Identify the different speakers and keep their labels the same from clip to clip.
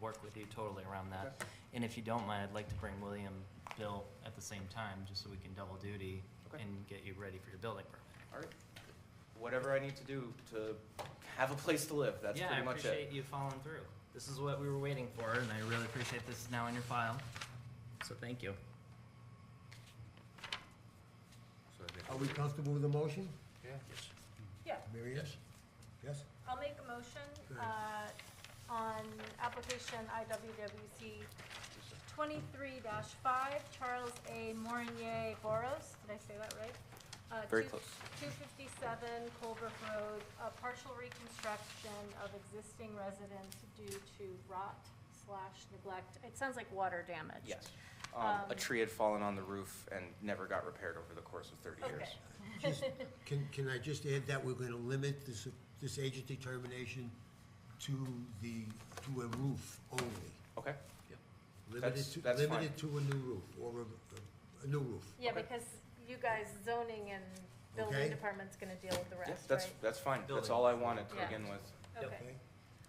Speaker 1: work with you totally around that.
Speaker 2: Okay.
Speaker 1: And if you don't mind, I'd like to bring William, Bill at the same time, just so we can double duty
Speaker 2: Okay.
Speaker 1: and get you ready for your building permit.
Speaker 2: All right. Whatever I need to do to have a place to live, that's pretty much
Speaker 1: Yeah, I
Speaker 2: it.
Speaker 1: appreciate you following through. This is what we were waiting for, and I really appreciate this is now in your file. So thank you.
Speaker 2: So I think-
Speaker 3: Are we comfortable with the motion?
Speaker 2: Yeah.
Speaker 4: Yeah,
Speaker 3: Mary Ann? Yes?
Speaker 4: I'll make a motion,
Speaker 3: Good.
Speaker 4: uh, on application IWWC twenty-three five, Charles A. Morinier Boros, did I say that right? Uh,
Speaker 2: Very
Speaker 4: two-
Speaker 2: close.
Speaker 4: 257 Colbrook Road, a partial reconstruction of existing residence due to rot slash neglect. It sounds like water damage.
Speaker 2: Yes. Um, a
Speaker 4: Um,
Speaker 2: tree had fallen on the roof and never got repaired over the course of thirty years.
Speaker 4: Okay.
Speaker 3: Just- Can, can I just add that we're gonna limit this, this agent determination to the, to a roof only?
Speaker 2: Okay,
Speaker 3: Limited
Speaker 2: That's-
Speaker 3: to-
Speaker 2: that's
Speaker 3: Limited to a new roof, or a, a new roof.
Speaker 4: Yeah,
Speaker 2: Okay.
Speaker 4: because you guys zoning and
Speaker 3: Okay.
Speaker 4: building department's gonna deal with the
Speaker 2: yeah,
Speaker 4: rest, right?
Speaker 2: that's, that's fine. That's
Speaker 1: Building.
Speaker 2: all I wanted to
Speaker 4: Yeah.
Speaker 2: begin with.
Speaker 1: Yep.
Speaker 4: Okay.
Speaker 3: Okay?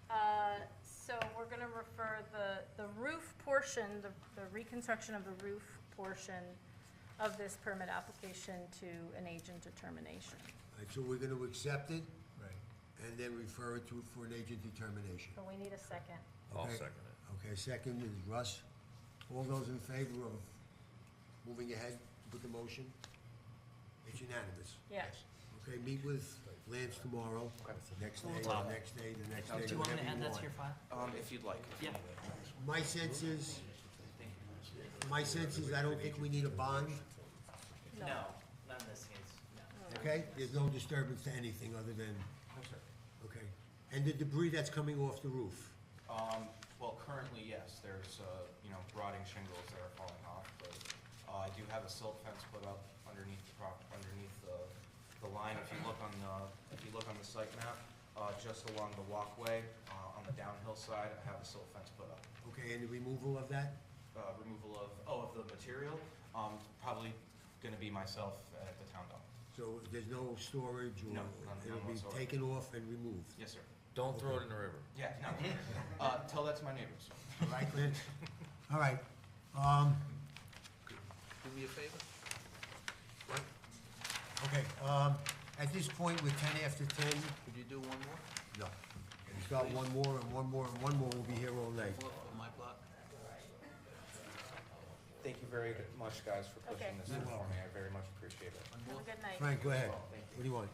Speaker 4: Uh, So we're gonna refer the, the roof portion, the the reconstruction of the roof portion of this permit application to an agent determination.
Speaker 3: All right, so we're gonna accept it
Speaker 5: Right.
Speaker 3: and then refer it to, for an agent determination.
Speaker 4: So we need a second.
Speaker 5: I'll
Speaker 3: Okay?
Speaker 5: second it.
Speaker 3: Okay, second is Russ. All those in favor of moving ahead with the motion? It's unanimous.
Speaker 4: Yeah.
Speaker 3: Okay, meet with Lance tomorrow, next day,
Speaker 1: Wow.
Speaker 3: the next day, the next day,
Speaker 1: Do you want me to
Speaker 3: whenever
Speaker 1: add
Speaker 3: you
Speaker 1: that
Speaker 3: want.
Speaker 1: to your file?
Speaker 2: Um, if you'd like.
Speaker 1: Yeah.
Speaker 3: My sense is, my sense is I don't think we need a bond,
Speaker 1: No, not in this case, no.
Speaker 3: okay? There's no disturbance to anything other than,
Speaker 2: No, sir.
Speaker 3: okay? And the debris that's coming off the roof,
Speaker 2: Um, well, currently, yes, there's, uh, you know, rotting shingles that are falling off, but, uh, I do have a silt fence put up underneath the prop, underneath the, the line, if you look on the, if you look on the site map, uh, just along the walkway, uh, on the downhill side, I have a silt fence put up.
Speaker 3: okay, and the removal of that?
Speaker 2: Uh, removal of, oh, of the material, um, probably gonna be myself at the town dump.
Speaker 3: So there's no storage or?
Speaker 2: No, none- none
Speaker 3: It'll be
Speaker 2: whatsoever.
Speaker 3: taken off and removed?
Speaker 2: Yes, sir.
Speaker 5: Don't throw it in the river.
Speaker 2: Yeah, no, uh, tell that to my neighbors.
Speaker 3: All right, Lynn? All right, um,
Speaker 5: Do me a favor?
Speaker 3: okay, um, at this point, we're ten after ten.
Speaker 5: Could you do one more?
Speaker 3: No. We've got one more, and one more, and one more, we'll be here all night.
Speaker 5: Look, on my block?
Speaker 2: Thank you very much, guys, for
Speaker 4: Okay.
Speaker 2: pushing this through for me, I very much appreciate it.
Speaker 4: Have a good night.
Speaker 3: Frank, go ahead. What do you want?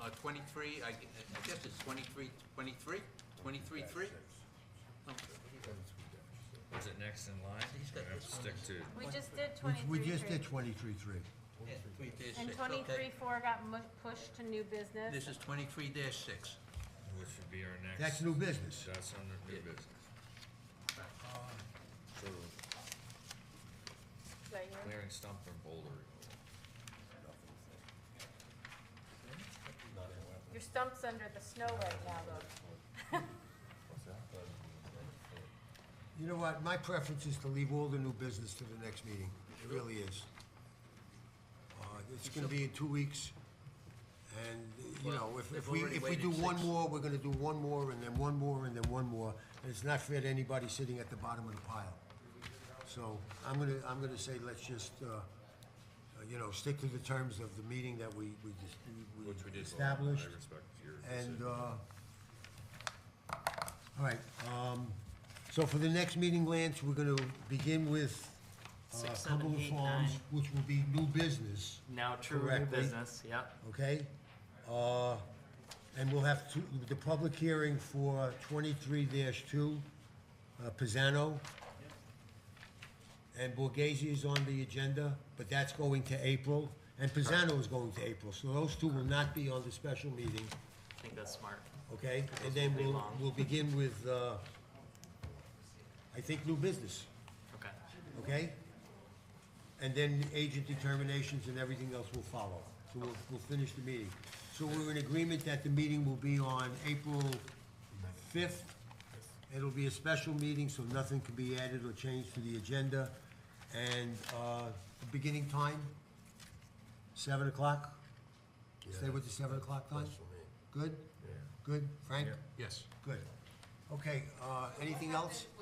Speaker 5: Uh, twenty-three, I, gu- I guess it's twenty-three, twenty-three, twenty-three, three?
Speaker 6: Is it next in line?
Speaker 5: He's got
Speaker 6: Or
Speaker 5: this one.
Speaker 6: Stick to,
Speaker 4: We just did
Speaker 3: We we just did
Speaker 4: 23.3.
Speaker 3: twenty-three, three.
Speaker 5: Yeah, twenty-three
Speaker 4: And
Speaker 5: six, okay.
Speaker 4: 23.4 got mu- pushed to new business.
Speaker 5: This is twenty-three dash six.
Speaker 6: which would be our next.
Speaker 3: That's new business.
Speaker 6: That's under new
Speaker 5: Yeah.
Speaker 6: business. So
Speaker 4: Is that yours?
Speaker 6: clearing stump and boulder. removal.
Speaker 4: Your stump's under the snow right now, though.
Speaker 6: Um,
Speaker 3: You know what, my preference is to leave all the new business to the next meeting, it really is. Uh, It's gonna be in two weeks, and, you know, if, if
Speaker 5: They've
Speaker 3: we,
Speaker 5: already
Speaker 3: if we do
Speaker 5: waited
Speaker 3: one
Speaker 5: six.
Speaker 3: more, we're gonna do one more, and then one more, and then one more, and it's not fair to anybody sitting at the bottom of the pile. So, I'm gonna, I'm gonna say, let's just, uh, uh, you know, stick to the terms of the meeting that we, we just, we-
Speaker 6: Which we
Speaker 3: we
Speaker 6: did. vote on.
Speaker 3: established.
Speaker 6: I respect your decision.
Speaker 3: And, uh, all right, um, so for the next meeting, Lance, we're gonna begin with uh,
Speaker 1: Six, seven,
Speaker 3: Cumberland
Speaker 1: eight,
Speaker 3: Farms,
Speaker 1: nine.
Speaker 3: which will be new business,
Speaker 1: Now true new
Speaker 3: Correctly.
Speaker 1: business, yep.
Speaker 3: okay? Uh, and we'll have two, the public hearing for twenty-three two, uh, Pisano. And Borghese is on the agenda, but that's going to April, and Pisano is going to April, so those two will not be on the special meeting.
Speaker 1: I think that's smart.
Speaker 3: Okay, and
Speaker 1: Those will
Speaker 3: then
Speaker 1: be
Speaker 3: we'll,
Speaker 1: long.
Speaker 3: we'll begin with, uh, I think, new business,
Speaker 1: Okay.
Speaker 3: okay? And then agent determinations and everything else will follow. So we'll, we'll finish the meeting. So we're in agreement that the meeting will be on April fifth. It'll be a special meeting, so nothing can be added or changed to the agenda. And, uh, the beginning time, seven o'clock? Stay with the seven o'clock time? Good? Good, Frank?
Speaker 5: Yes.
Speaker 3: Good. Okay, uh, anything else?